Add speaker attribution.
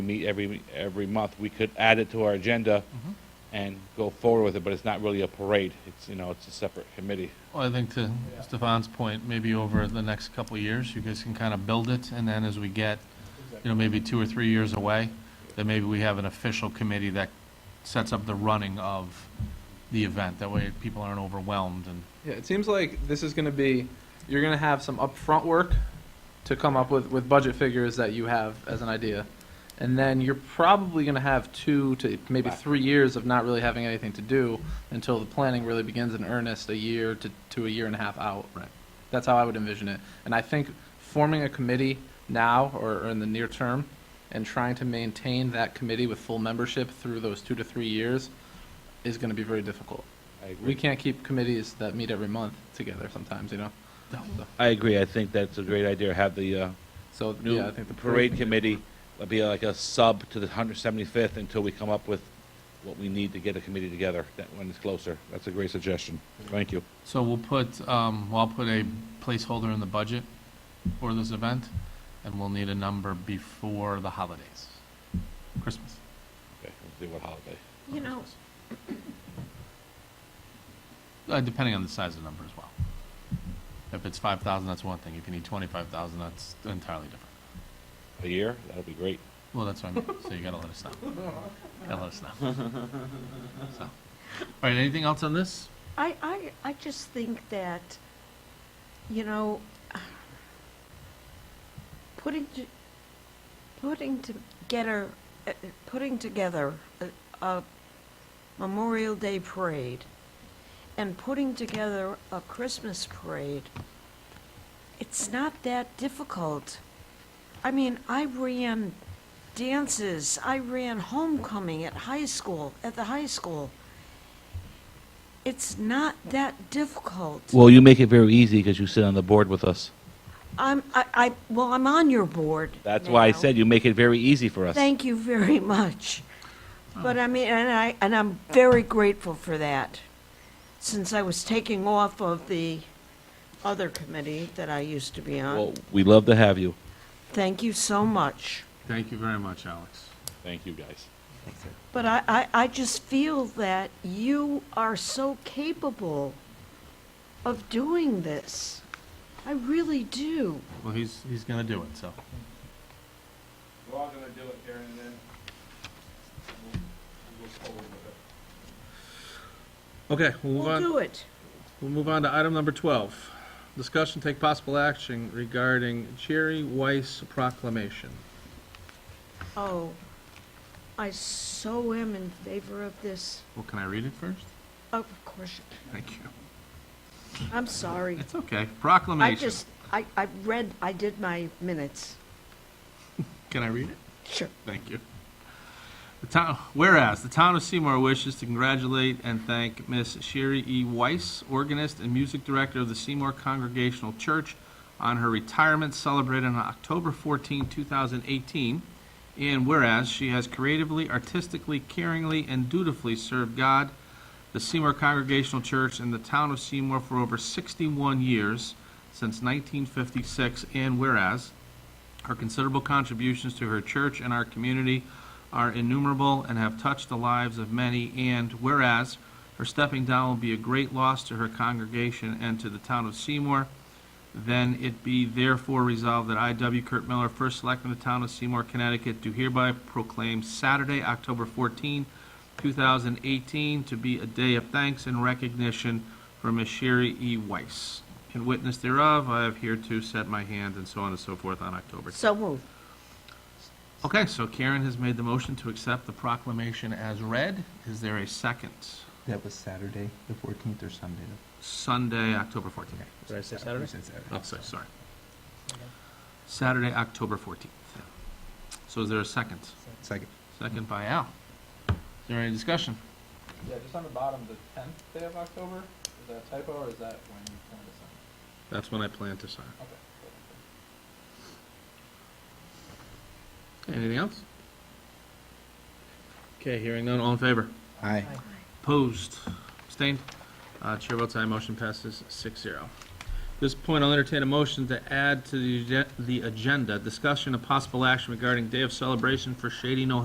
Speaker 1: meet every, every month, we could add it to our agenda and go forward with it, but it's not really a parade. It's, you know, it's a separate committee.
Speaker 2: Well, I think to Stefan's point, maybe over the next couple of years, you guys can kind of build it, and then as we get, you know, maybe two or three years away, then maybe we have an official committee that sets up the running of the event. That way, people aren't overwhelmed and
Speaker 3: Yeah, it seems like this is going to be you're going to have some upfront work to come up with with budget figures that you have as an idea. And then you're probably going to have 2 to maybe 3 years of not really having anything to do until the planning really begins in earnest a year to to a year and a half out. Right. That's how I would envision it. And I think forming a committee now or, or in the near term and trying to maintain that committee with full membership through those 2 to 3 years is going to be very difficult.
Speaker 1: I
Speaker 3: We
Speaker 1: agree.
Speaker 3: can't keep committees that meet every month together sometimes, you know? So-
Speaker 1: I agree. I think that's a great idea. Have the, uh,
Speaker 3: So,
Speaker 1: new
Speaker 3: yeah, I think the
Speaker 1: parade committee would be like a sub to the hundred seventy-fifth until we come up with what we need to get a committee together, that, when it's closer. That's a great suggestion. Thank you.
Speaker 2: So we'll put, um, well, I'll put a placeholder in the budget for this event, and we'll need a number before the holidays, Christmas.
Speaker 1: Okay, we'll see what holiday.
Speaker 4: You know,
Speaker 2: Uh, depending on the size of the number as well. If it's five thousand, that's one thing. If you need twenty-five thousand, that's entirely different.
Speaker 1: A year? That'll be great.
Speaker 2: Well, that's what I mean, so you gotta let us know. Gotta let us know. So, All right, anything else on this?
Speaker 4: I, I, I just think that, you know, putting, to- putting together, uh, putting together a- a Memorial Day parade and putting together a Christmas parade, it's not that difficult. I mean, I ran dances, I ran homecoming at high school, at the high school. It's not that difficult.
Speaker 1: Well, you make it very easy because you sit on the board with us.
Speaker 4: I'm, I, I, well, I'm on your board.
Speaker 1: That's why I
Speaker 4: now.
Speaker 1: said you make it very easy for us.
Speaker 4: Thank you very much. But I mean, and I, and I'm very grateful for that, since I was taking off of the other committee that I used to be
Speaker 1: Well,
Speaker 4: on.
Speaker 1: we love to have you.
Speaker 4: Thank you so much.
Speaker 2: Thank you very much, Alex.
Speaker 1: Thank you, guys.
Speaker 4: But I, I, I just feel that you are so capable of doing this. I really do.
Speaker 2: Well, he's, he's gonna do it, so.
Speaker 1: We're all gonna do it, Karen, and then we'll go forward with it.
Speaker 2: Okay, we'll
Speaker 4: We'll do it.
Speaker 2: We'll move on to item number 12. Discussion, take possible action regarding Jerry Weiss proclamation.
Speaker 4: Oh, I so am in favor of this. Oh,
Speaker 2: Well, can I read it first?
Speaker 4: Of course,
Speaker 2: Thank you.
Speaker 4: I'm sorry.
Speaker 2: It's okay.
Speaker 4: I
Speaker 2: Proclamation.
Speaker 4: just, I, I read, I did my minutes.
Speaker 2: Can I read it?
Speaker 4: Sure.
Speaker 2: Thank you. The town, whereas the town of Seymour wishes to congratulate and thank Miss Sherry E. Weiss, organist and music director of the Seymour Congregational Church, on her retirement celebrated on October 14, 2018. And whereas she has creatively, artistically, caringly, and dutifully served God, the Seymour Congregational Church, and the town of Seymour for over 61 years since 1956. And whereas her considerable contributions to her church and our community are innumerable and have touched the lives of many, and whereas her stepping down will be a great loss to her congregation and to the town of Seymour, then it be therefore resolved that I, W. Kurt Miller, first selectman of the town of Seymour, Connecticut, do hereby proclaim Saturday, October 14, 2018, to be a day of thanks and recognition for Ms. Sherry E. Weiss. In witness thereof, I have hereto set my hand and so on and so forth on October
Speaker 4: So moved.
Speaker 2: Okay, so Karen has made the motion to accept the proclamation as read. Is there a second?
Speaker 5: That was Saturday, the fourteenth, or Sunday.
Speaker 2: Sunday, October 14th.
Speaker 5: Did I say Saturday? Saturday.
Speaker 2: Oh, sorry, sorry. Saturday, October 14th. So is there a second?
Speaker 5: Second.
Speaker 2: Second by Al. Is there any discussion?
Speaker 3: Yeah, just on the bottom, the tenth day of October, is that a typo or is that when you plan to sign?
Speaker 2: That's when I plan to sign.
Speaker 3: Okay.
Speaker 2: Anything else? Okay, hearing none, all in favor?
Speaker 5: Aye.
Speaker 2: Opposed? Abstained? Uh, Chair votes aye, motion passes six zero. this point, I'll entertain a motion to add to the agen- the agenda, discussion of possible action regarding day of celebration for Shady No